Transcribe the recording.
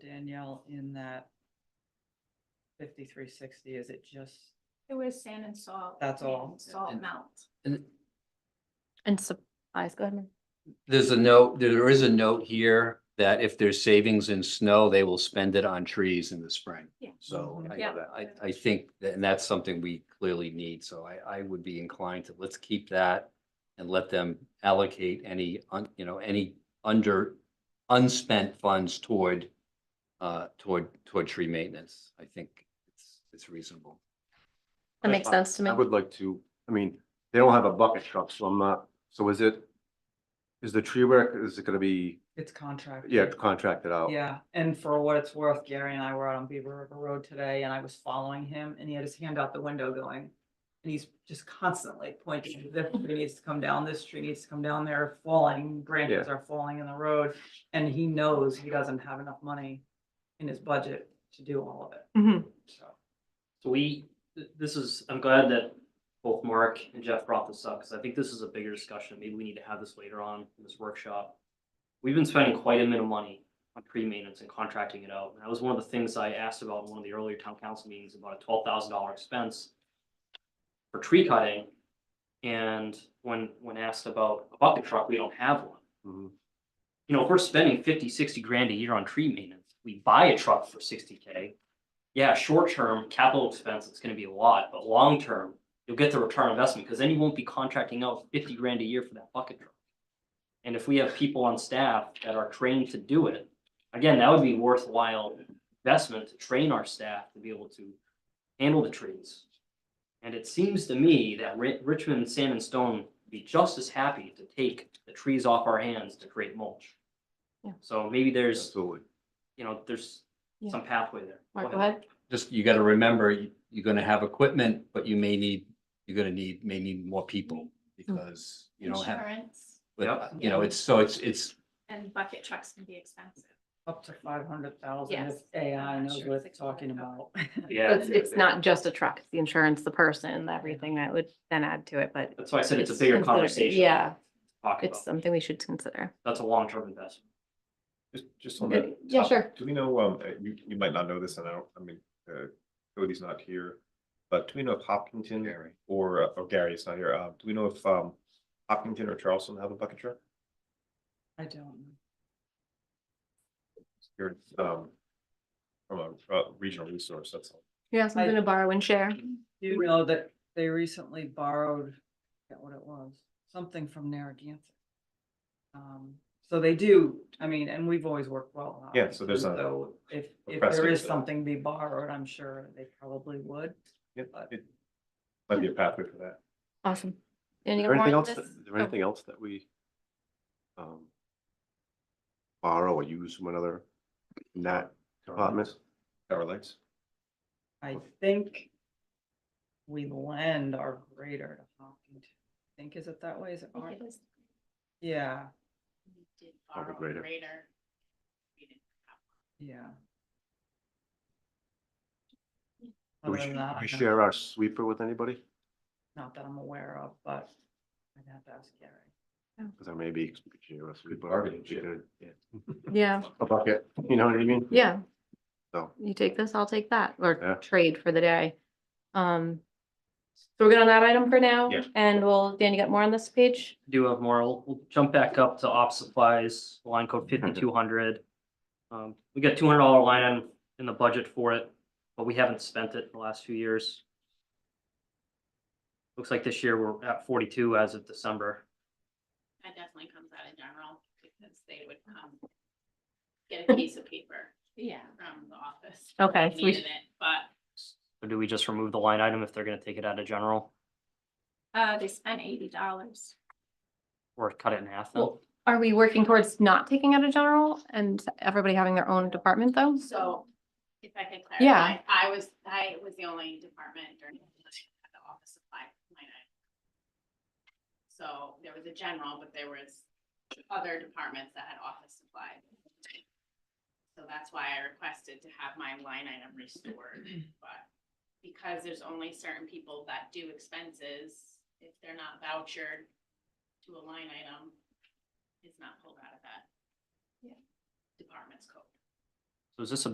Danielle in that fifty-three sixty, is it just, It was sand and salt. That's all. and Salt And- melt. And And supplies, go ahead. Mary. there's a note, there is a note here that if there's savings in snow, they will spend it on trees in the spring. Yeah. So I, Yeah. I, I think, that- and that's something we clearly need, so I, I would be inclined to, let's keep that and let them allocate any, un you know, any under, unspent funds toward, uh, toward, toward tree maintenance. I think it's, it's reasonable. That makes I- sense to me. I would like to, I mean, they don't have a bucket truck, so I'm not, so is it, is the tree work, is it gonna be, it's contract? yeah, contracted oh. out? Yeah, and for what it's worth, Gary and I were out on Beaver River Road today and I was following him and he had his hand out the window going. And he's just constantly pointing, this tree needs to come down, this tree needs to come down, they're falling, branches are falling in the road. And he knows he doesn't have enough money in his budget to do all of it, so. So we, th- this is, I'm glad that both Mark and Jeff brought this up, because I think this is a bigger discussion. Maybe we need to have this later on in this workshop. We've been spending quite a bit of money on tree maintenance and contracting it out. And that was one of the things I asked about in one of the earlier town council meetings, about a twelve thousand dollar expense for tree cutting. And when, when asked about a bucket truck, we don't have one. Mhm. You know, if we're spending 50, 60 grand a year on tree maintenance, we buy a truck for sixty K. Yeah, short term, capital expense, it's gonna be a lot, but long term, you'll get the return on investment, because then you won't be contracting out fifty grand a year for that bucket truck. And if we have people on staff that are trained to do it, again, that would be worthwhile investment to train our staff to be able to handle the trees. And it seems to me that Ri- Richmond Sand and Stone would be just as happy to take the trees off our hands to create mulch. Yeah. So maybe there's, Absolutely. you know, there's Yeah. some pathway there. Mark, go ahead. Just, you gotta remember, you- you're gonna have equipment, but you may need, you're gonna need, may need more people because you don't have. Insurance But, Yep. uh, you know, it's, so it's, it's, and bucket trucks can be expensive. Up to five hundred thousand if Yes. AI I'm not knows sure what if it's it's gonna talking about. help. Yeah, It's, it's not just a truck, it's the insurance, the person, everything that would then add to it, but. that's why I said it's a bigger considered- conversation. to Yeah, Talk it's about, something we should consider. that's a long-term investment. Just, just on Yeah, that. Uh, yeah, top- sure. Do we know, um, uh, you, you might not know this, and I don't, I mean, uh, Cody's not here, but do we know if Hopkinton Gary. or, uh, or Gary is not here, uh, do we know if, um, Hopkinton or Charleston have a bucket truck? I don't know. Here, um, from a, uh regional resource, that's all. Yeah, something to borrow and share. You know that they recently borrowed, I forget what it was, something from Narragansett. Um, so they do, I mean, and we've always worked well. Yeah, so there's obviously, a- So if, a if there precedent is there. something to be borrowed, I'm sure they probably would. Yeah, But- it might be a pathway for that. Awesome. And Is you there got more anything on else, this? that- is there anything else that we um borrow or use from another, not department? Tower lights. I think we lend our grader to Hopkinton. I Think, is it that way? Is it? I our- think it was- Yeah, we did Or the borrow a grader. grader. We didn't have yeah. Do we, Other sh- than do that, we I don't- share our sweeper with anybody? Not that I'm aware of, but I'd have to ask Gary. Cause I may be, we could share our sweeper. bargaining we chip. could, yeah, Oh, Yeah, A bucket, you know what I mean? yeah. So. You take this, I'll take that, Yeah. or trade for the day. Um, so we're good on that item for now? Yeah. And we'll, Dan, you got more on this page? do have more. We'll we'll jump back up to op supplies, line code fifty-two hundred. Um, we got two hundred dollar line item in the budget for it, but we haven't spent it in the last few years. Looks like this year we're at forty-two as of December. That definitely comes out in general because they would come get a piece of paper. Yeah. From the office. if Okay, they so we- Needed it, but So do we just remove the line item if they're gonna take it out of general uh, they spent eighty dollars. or cut it in half then? Well- Are we working towards not taking out a general and everybody having their own department though? So if I could clarify. Yeah. I was, I was the only department during the at the office supply line item. So there was a general, but there was other departments that had office supply. So that's why I requested to have my line item restored, but because there's only certain people that do expenses, if they're not vouchered to a line item, it's not pulled out of that. Department's code. So is this a